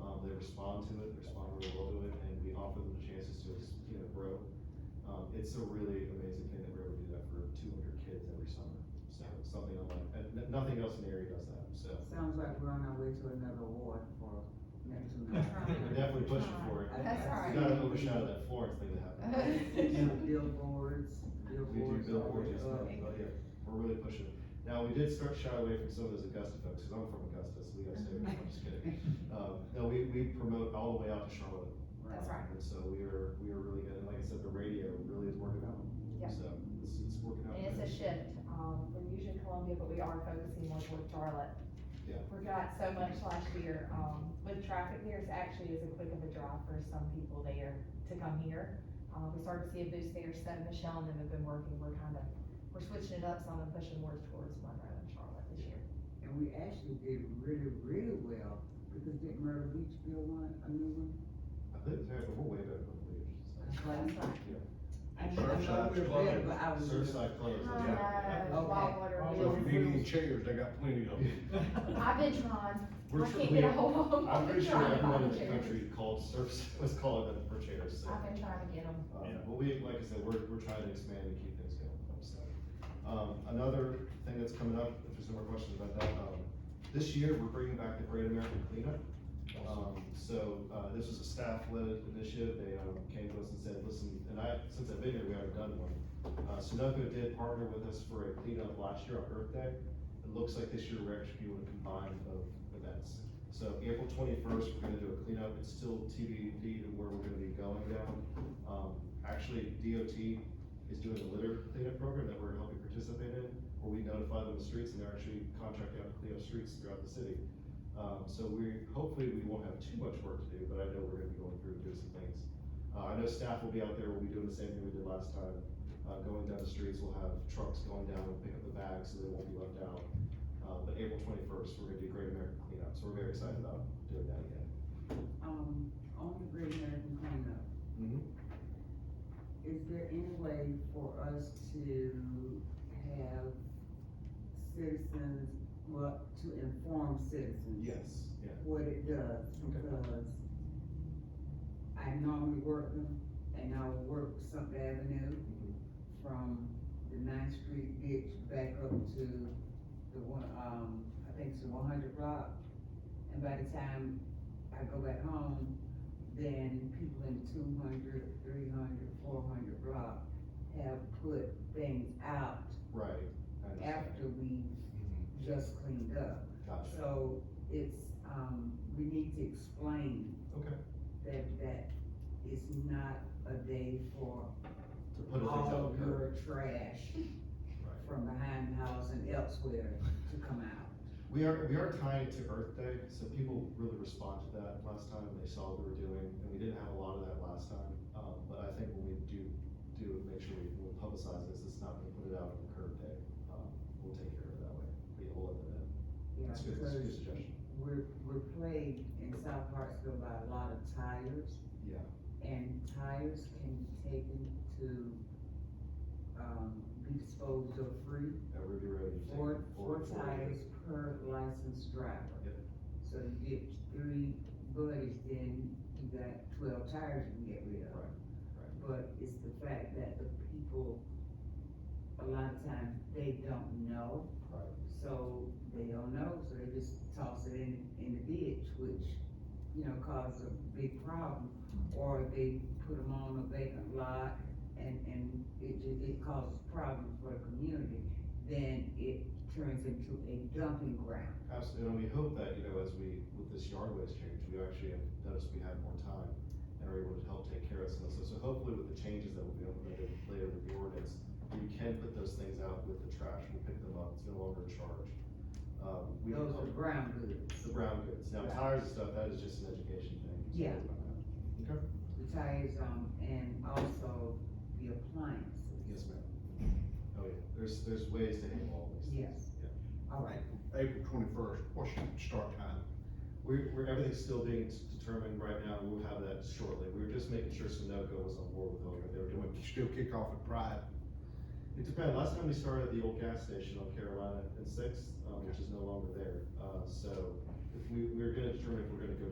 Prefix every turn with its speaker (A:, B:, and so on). A: Um, respond to it, respond really well to it, and we offer them the chances to, you know, grow. Um, it's a really amazing thing that we're able to do that for two hundred kids every summer, so it's something unlike, and n- nothing else in the area does that, so.
B: Sounds like we're on our way to another award for next
A: We're
B: month.
C: trying.
A: definitely pushing for it.
C: Uh, That's all right.
A: You gotta overshadow that Florence thing that happened.
B: You know, Billboards,
A: We do
B: billboards.
A: billboards, yes,
B: are, uh,
A: ma'am. oh, yeah, we're really pushing. Now, we did start shy away from some of those Augusta folks, cause I'm from Augusta, so we gotta stay away, I'm just kidding. Um, no, we, we promote all the way out to Charlotte.
C: That's
A: Um,
C: right.
A: And so we are, we are really good, and like I said, the radio really is working out.
D: Yep.
A: So, it's, it's working out.
D: And it's a
A: good.
D: shift, um, we're usually in Columbia, but we are focusing more toward Charlotte.
A: Yeah.
D: Forgot so much last year, um, with traffic there, it's actually as a quick of a drive for some people there to come here. Uh, we started to see a boost there, so Michelle and them have been working, we're kind of, we're switching it up, some and pushing more towards Monroe and Charlotte this year.
B: And we actually did really, really well, because didn't Myrtle Beach build one, a new one?
A: I think, it's happening. we're way better than we are.
B: That's right.
D: That's right.
B: I know- I know we're
E: Surfside's
B: better, but I was.
A: Surfside closed.
D: I know,
A: Oh.
B: Okay.
D: Whitewater
E: Also, if you need any
D: Wheels.
E: chairs, they got plenty of them.
D: I've been trying,
E: We're
D: I can't
E: we-
D: get a hold of them.
A: I'm pretty sure
D: Trying to
A: everyone in
D: find
A: the
D: chairs.
A: country called Surfside, was calling them for chairs, so.
D: I've been trying to get them.
A: Um,
E: Yeah.
A: But we, like I said, we're, we're trying to expand and keep things going, so. Um, another thing that's coming up, if there's no more questions about that, um, this year, we're bringing back the Great American Cleanup. Um, so, uh, this was a staff-led initiative, they, um, came to us and said, listen, and I, since I've been here, we haven't done one. Uh, Sunoco did partner with us for a cleanup last year on Earth Day, it looks like this year we're actually doing a combined of events. So April twenty-first, we're gonna do a cleanup, it's still TBD to where we're gonna be going down. Um, actually, DOT is doing a litter cleanup program that we're helping participate in, where we notify them of streets and they're actually contracting out to clean up streets throughout the city. Um, so we, hopefully, we won't have too much work to do, but I know we're gonna be going through and doing some things. Uh, I know staff will be out there, we'll be doing the same thing we did last time, uh, going down the streets, we'll have trucks going down and pick up the bags, so they won't be left out. Uh, but April twenty-first, we're gonna do Great American Cleanup, so we're very excited about doing that again.
B: Um, on the Great American Cleanup, is there any way for us to have citizens, well, to inform citizens?
A: Yes. Yeah.
B: what it does, because I normally work them, and I will work Sump Avenue from the Ninth Street ditch back up to the one, um, I think it's the one hundred block. And by the time I go back home, then people in 200, 300, 400 block have put things out
A: Right. I understand.
B: after we just cleaned up.
A: Gotcha.
B: So it's, um, we need to explain.
A: Okay.
B: That, that it's not a day for
A: To put it things
B: all
A: out there.
B: your trash
A: Right.
B: from behind the house and elsewhere to come out.
A: We are, we are tying it to Earth Day, so people really respond to that last time, they saw what we were doing, and we didn't have a lot of that last time. Um, but I think when we do, do, make sure we we publicize this, it's not gonna put it out on the curb day, um, we'll take care of it that way, we will let that in.
B: Yeah,
A: That's good, that's a good
B: because
A: suggestion,
B: we're, we're plagued in South Hartsville by a lot of tires,
A: yeah,
B: and tires can be taken to, um, be disposed of free.
A: at Ruby Road. you take
B: Four, four
A: four- four-
B: tires per licensed driver.
A: Yep.
B: So you get three buddies, then you got twelve tires you can get rid of.
A: Right, right.
B: But it's the fact that the people, a lot of times, they don't know.
A: Right.
B: So they don't know, so they just toss it in, in the ditch, which, you know, causes a big problem. Or they put them on a vacant lot and, and it, ju- it causes problems for the community. Then it turns into a dumping ground.
A: Absolutely, and we hope that, you know, as we, with this yard waste change, we actually have noticed we have more time and are able to help take care of some of this. So hopefully with the changes that will be implemented later with the ordinance, you can put those things out with the trash, we'll pick them up, it's no longer a charge. Um, we
B: Those are
A: hope-
B: brown goods.
A: The brown goods, now tires and stuff, that is just an education thing. so
B: Yeah.
A: about that. Okay,
B: The tires, um, and also the appliances.
A: yes, ma'am. Oh, yeah, there's, there's ways to handle all these things.
B: Yes.
A: Yeah.
B: All right,
E: April twenty-first, what's your start time?
A: We're, we're, everything's still being s- determined right now, we'll have that shortly, we were just making sure Sunoco was on board with all that they were
E: Do
A: doing.
E: we still kick off at Pride?
A: It depends. Last time we started at the old gas station on Carolina and Sixth, um, which is no longer there. Uh, so if we, we we're gonna determine if we're gonna go